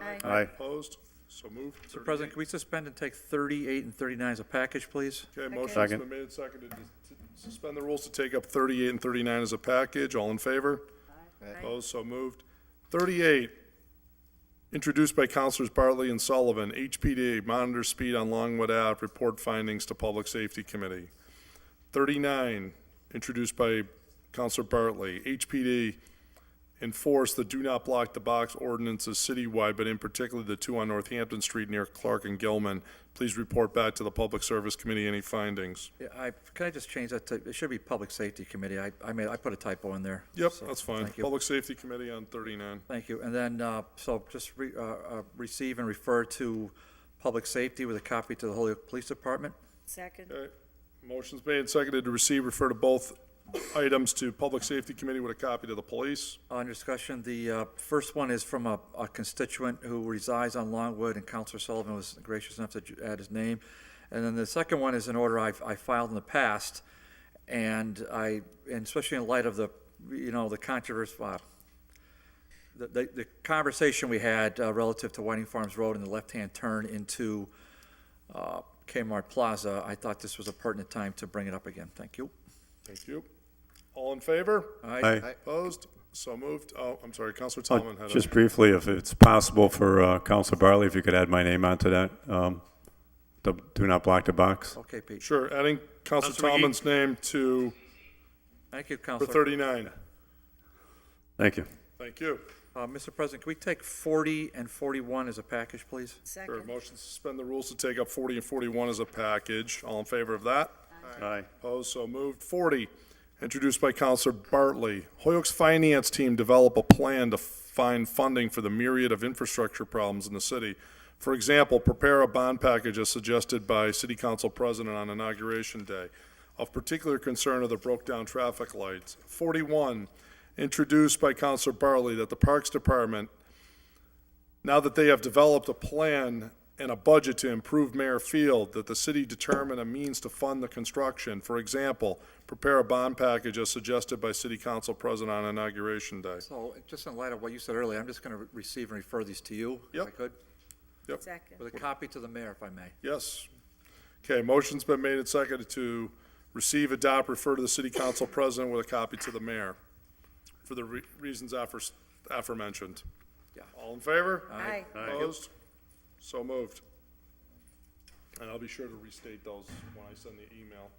Aye. Aye. Opposed? So moved. Mr. President, can we suspend and take 38 and 39 as a package, please? Okay, motion's Second. been made and seconded to to suspend the rules to take up 38 and 39 as a package. All in favor? Opposed? So moved. 38, introduced by Counselors Bartley and Sullivan, HPD monitor speed on Longwood Ave, report findings to Public Safety Committee. 39, introduced by Counselor Bartley, HPD enforce the do not block the box ordinances citywide, but in particular the two on Northampton Street near Clark and Gilman. Please report back to the Public Service Committee any findings. Yeah, I, can I just change that to, it should be Public Safety Committee. I, I made, I put a typo in there. Yep, So, that's fine. Thank you. Public Safety Committee on 39. Thank you. And then, uh, so just re, uh, uh, receive and refer to Public Safety with a copy to the Holyoke Police Department. Second. Okay. Motion's made and seconded to receive, refer to both items to Public Safety Committee with a copy to the police. On discussion, the uh, first one is from a a constituent who resides on Longwood, and Counselor Sullivan was gracious enough to ju- add his name. And then the second one is an order I've- I filed in the past, and I, and especially in light of the, you know, the controversy, uh, the- the the conversation we had uh, relative to Whiting Farms Road and the left-hand turn into uh, Kmart Plaza, I thought this was a pertinent time to bring it up again. Thank you. Thank you. All in favor? Aye. Opposed? So moved. Oh, I'm sorry, Counselor Tomlin had a, Just briefly, if it's possible for uh, Council Barley, if you could add my name onto that, um, the do not block the box. Okay, Pete. sure, adding Counselor Counselor McGee. Tomlin's name to, Thank you, for Counselor. 39. Thank you. Thank you. Uh, Mr. President, can we take 40 and 41 as a package, please? Sure, Second. motion to suspend the rules to take up 40 and 41 as a package. All in favor of that? Aye. Opposed, so moved. 40, introduced by Counselor Bartley. Hoyok's finance team develop a plan to find funding for the myriad of infrastructure problems in the city. For example, prepare a bond package as suggested by City Council President on Inauguration Day. Of particular concern are the broke-down traffic lights. 41, introduced by Counselor Bartley, that the Parks Department now that they have developed a plan and a budget to improve Mayor Field, that the city determine a means to fund the construction. For example, prepare a bond package as suggested by City Council President on Inauguration Day. So, just in light of what you said earlier, I'm just going to receive and refer these to you, if I Yep. could, Second. with a copy to the mayor, if I may. Yes. Okay, motion's been made and seconded to receive, adopt, refer to the City Council President with a copy to the mayor for the re- reasons affers- aforementioned. Yeah. All in favor? Aye. Opposed? So moved. And I'll be sure to restate those when I send the email.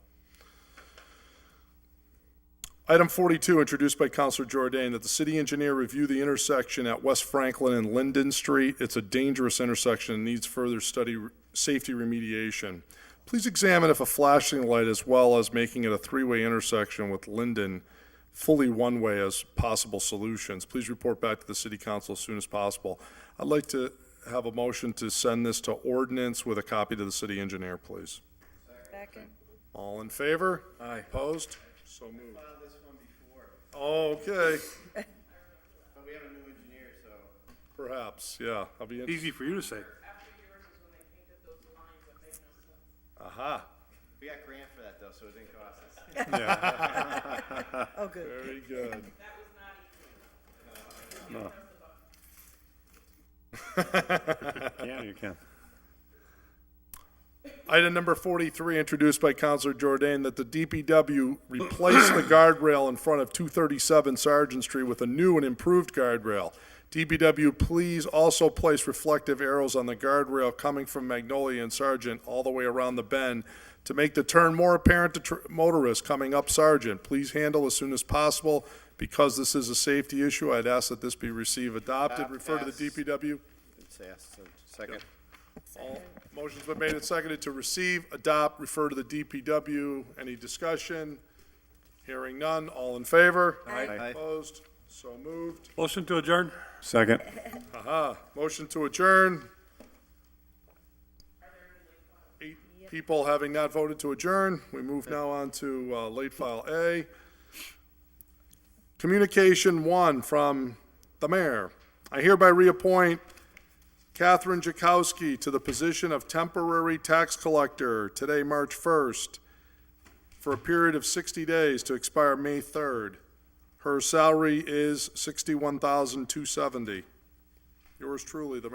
Item 42, introduced by Counselor Jordan, that the city engineer review the intersection at West Franklin and Linden Street. It's a dangerous intersection and needs further study, safety remediation. Please examine if a flashing light, as well as making it a three-way intersection with Linden, fully one-way as possible solutions. Please report back to the city council as soon as possible. I'd like to have a motion to send this to ordinance with a copy to the city engineer, please. Second. All in favor? Aye. Opposed? So moved. Okay, But we have a new engineer, so. perhaps, yeah, I'll be, in- Easy for you to say. aha, We got grant for that though, so it didn't cost us. Oh, good. very good. Yeah, you can. Item number 43, introduced by Counselor Jordan, that the DPW replace the guardrail in front of 237 Sergeant Street with a new and improved guardrail. DPW, please also place reflective arrows on the guardrail coming from Magnolia and Sergeant all the way around the bend to make the turn more apparent to tr- motorists coming up Sergeant. Please handle as soon as possible. Because this is a safety issue, I'd ask that this be received, adopted, refer to the DPW. second. All- Motion's been made and seconded to receive, adopt, refer to the DPW. Any discussion? Hearing none. All in favor? Aye. Opposed? So moved. Motion to adjourn? Second. Motion to adjourn. Eight people having not voted to adjourn. We move now on to uh, late file A. Communication one from the mayor. I hereby reappoint Catherine Jakowski to the position of temporary tax collector today, March 1st, for a period of 60 days to expire May 3rd. Her salary is 61270 Yours truly, the mayor.